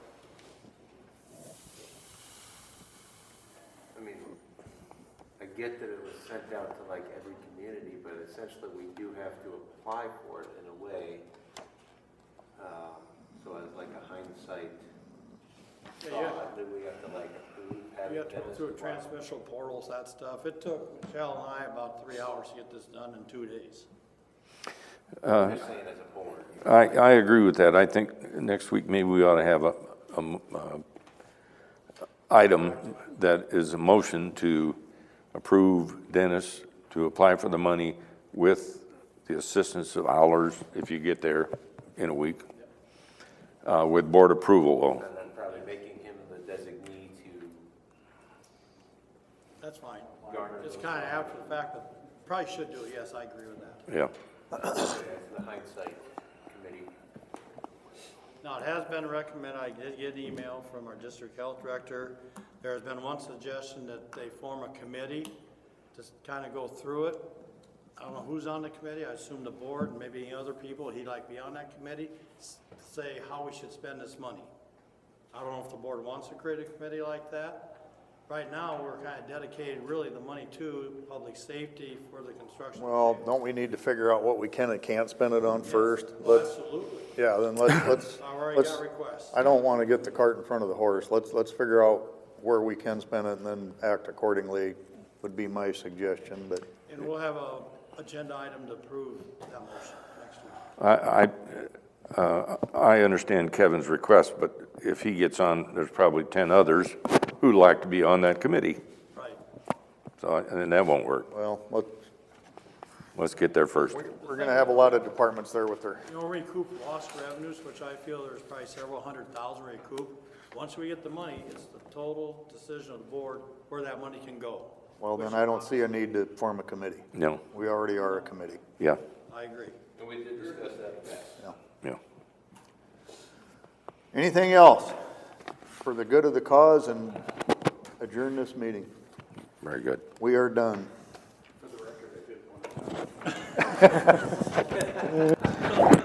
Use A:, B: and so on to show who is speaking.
A: get that it was sent out to like every community, but essentially we do have to apply for it in a way. um, So as like a hindsight
B: Yeah, you have-
A: thought, then we have to like approve having
B: You have to go
A: Dennis
B: through
A: apply.
B: transmission portals, that stuff. It took Michelle and I about three hours to get this done in two days.
A: I'm just saying as a board.
C: I, I agree with that. I think next week, maybe we ought to have a, a m- uh, item that is a motion to approve Dennis to apply for the money with the assistance of Allers, if you get there in a week, uh, with board approval, Oh, though.
A: And then probably making him the designee to
B: That's fine.
A: garner
B: It's
A: those,
B: kind of after the fact, but probably should do it. Yes, I agree with that.
C: Yeah,
A: as the hindsight committee.
B: Now, it has been recommended, I did get an email from our district health director. There has been one suggestion that they form a committee to kind of go through it. I don't know who's on the committee, I assume the board, and maybe any other people, he'd like be on that committee, s- say how we should spend this money. I don't know if the board wants to create a committee like that. Right now, we're kind of dedicated really the money to public safety for the construction.
D: Well, don't we need to figure out what we can and can't spend it on first?
B: Well,
D: Let's,
B: Absolutely,
D: yeah, then let's, let's,
B: I already
D: let's,
B: got requests.
D: I don't want to get the cart in front of the horse. Let's, let's figure out where we can spend it and then act accordingly would be my suggestion, but
B: And we'll have a agenda item to approve that motion next week.
C: I, I, uh, I understand Kevin's request, but if he gets on, there's probably ten others who'd like to be on that committee,
B: Right.
C: so, I- and that won't work.
D: well, let,
C: Let's get there first.
D: we're going to have a lot of departments there with their,
B: You know, recoup lost revenues, which I feel there's probably several hundred thousand recoup. Once we get the money, it's the total decision of the board where that money can go.
D: well, then I don't see a need to form a committee.
C: No,
D: We already are a committee.
C: yeah,
B: I agree.
A: And we did discuss that back.
C: yeah.
D: Anything else for the good of the cause and adjourn this meeting?
C: Very good.
D: We are done.